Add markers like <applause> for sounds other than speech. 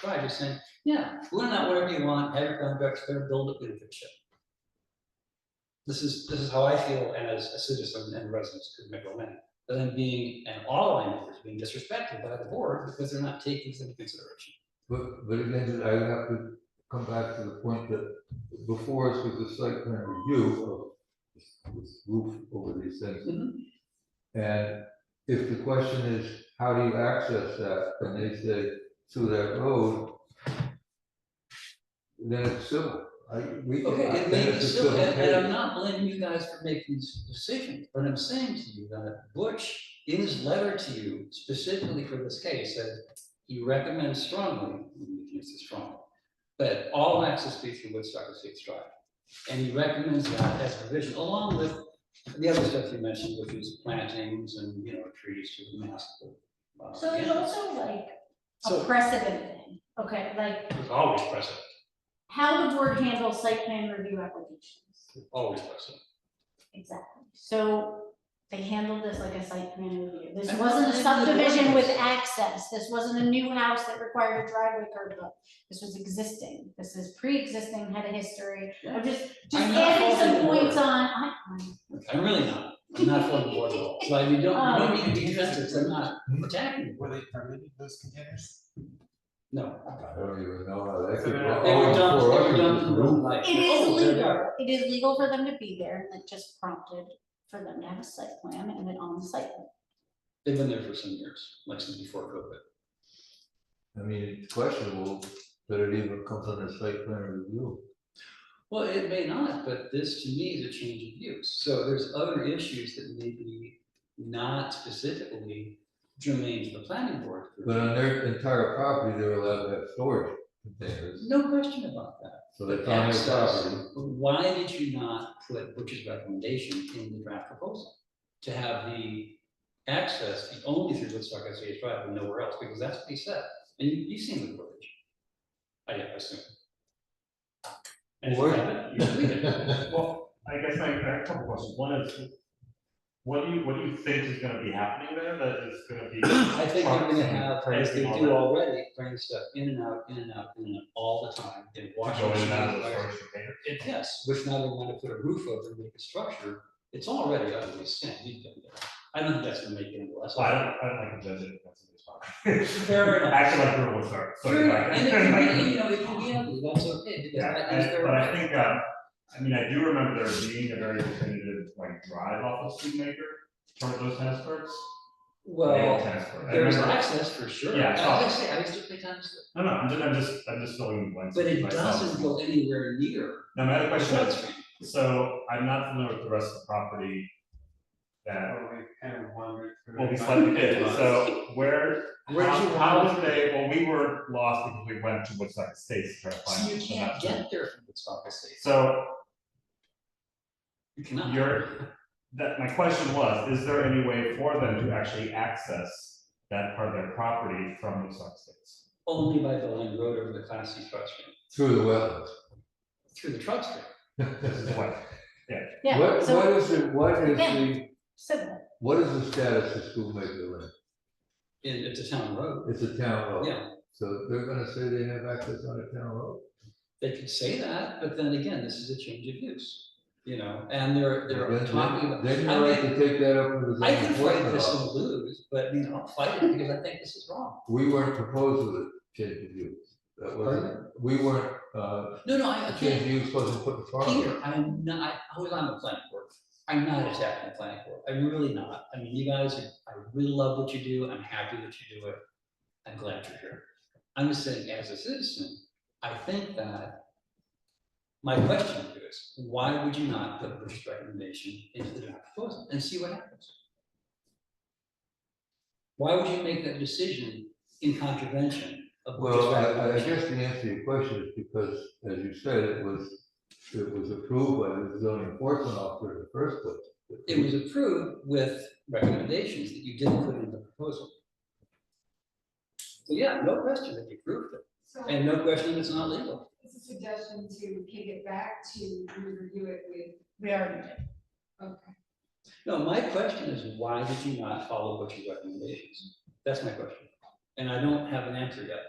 try, just saying, yeah, learn that whatever you want, have your contracts there, build it, leadership. This is, this is how I feel as a citizen and resident of Midville Lane, but then being, and all landowners being disrespected by the board because they're not taking this into consideration. But, but again, then I would have to come back to the point that before us was a site plan review of this- this roof over these things. Mhm. And if the question is, how do you access that, and they say through that road, then it's civil. I, we. Okay, I- it then may be it's a silly, and and I'm case. not blaming you guys for making these decisions, but I'm saying to you that Butch, in his letter to you specifically for this case, said he recommends strongly, we can use this strongly, that all access be through Woodstock Estates Drive. And he recommends that as a provision, along with the other stuff you mentioned, which is plantings and, you know, trees to the mask. uh, So there's yeah. also like a So- precedent thing, okay, like It's always present, how the board handles site plan review applications. always present. Exactly, so they handled this like a site plan review, this And wasn't a that's the subdivision with ordinance. access, this wasn't a new house that required a driveway curb cut. This was existing, this is pre-existing, had a history, I'm just, just I'm not adding faulting some the board. points on, I, I'm- I'm really not, I'm not for the board at all, so I mean, don't, you don't Um. need to be defensive, I'm not attacking you, Were they permitted those containers? no. I don't even know how that They could. Oh, were They were all dumped, they four were acres dumped is in roof. real life. It is Oh, they're legal, not. it is legal for them to be there, and it just prompted for them to have a site plan and then on the site plan. They've been there for some years, like since before COVID. I mean, it's questionable that it even comes under site plan review. Well, it may not, but this to me is a change of use, so there's other issues that may be not specifically germane to the planning board. But on their entire property, they're allowed to have storage containers, No question about that. so that's on their Access. property. But Why did you not put Butch's recommendation in the draft proposal? To have the access be only through Woodstock SCH Drive and nowhere else, because that's what he said, and you, you've seen the footage. I I assume. And if you Word. haven't, you <laughs> should read it. Well, I guess I I have a couple questions. One is, what do you, what do you think is gonna be happening there that is gonna be? <coughs> I think they're <laughs> gonna have, as they Anything do all already, bring stuff in and out, in and out, in and out, all the time, in that- Washington. Go in and out of the storage container? It yes, which now they want to put a roof over and make a structure, it's already utterly sin, you've done that. I don't think that's gonna make it any less. So I don't, I don't like to judge it. that's a good spot. <laughs> Fair enough. Actually, like we're with her, so. Sure, like- and <laughs> it <laughs> can be, you know, it can be ugly, that's okay, because Yeah, that is and- their. but I right. think, uh, I mean, I do remember there being a very definitive like drive off of Studebaker towards those tennis courts. They all Well, tennis court. I there's remember- access for sure, Yeah, as it's I obvious. say, I used to play tennis, No, no, I'm just, I'm just, I'm just filling in blanks. but it myself. doesn't go anywhere near. Now, my other the question Flat is, Street. So I'm not familiar with the rest of the property that, Well, we kind of wandered through. well, we it. slightly did, so where, Where did how, you how wander did they, well, we were lost because we went to Woodstock Estates to try to find. So you them, so can't that's- get there from Woodstock Estates, So you cannot. You're- that, my question was, is there any way for them to actually access that part of their property from Woodstock Estates? Only by the land road over the class C truck stream, Through the wetlands. through the truck stream. This is <laughs> what, Yeah, What, what so, is it, what is Yeah. the, so what is the status of Schoolmaker Lane? And it's a town road, It's a town road. yeah, So they're gonna say they have access on a town road? they could say that, but then again, this is a change of use, you know, and they're, they're Then- talking about. Then I you're right mean, to take that up with the. I can zoning fight enforcement this and officer. lose, but you know, I'll fight it because I think this is wrong. We weren't proposed with a change of use. That wasn't, we weren't, uh, No, no, I, a change of Peter, use wasn't put in front of us. Peter, I'm not, I- I was on the planning board. I'm not attacking the planning board. I'm really not. I mean, you guys, are- I really love what you do. I'm happy that you do it. I'm glad you're here. I'm just saying, as a citizen, I think that my question to you is, why would you not put Bush's recommendation into the draft proposal and see what happens? Why would you make that decision in contravention of Bush's Well, I, I recommendation? guess the answer to your question is because, as you said, it was, it was approved by the zoning enforcement officer in the first place. It was approved with recommendations that you didn't put in the proposal. So yeah, no question that you approved it, So and no question it's not legal. it's a suggestion to kick it back to review it with, we already did. okay. No, my question is, why did you not follow Butch's recommendations? That's my question, and I don't have an answer yet.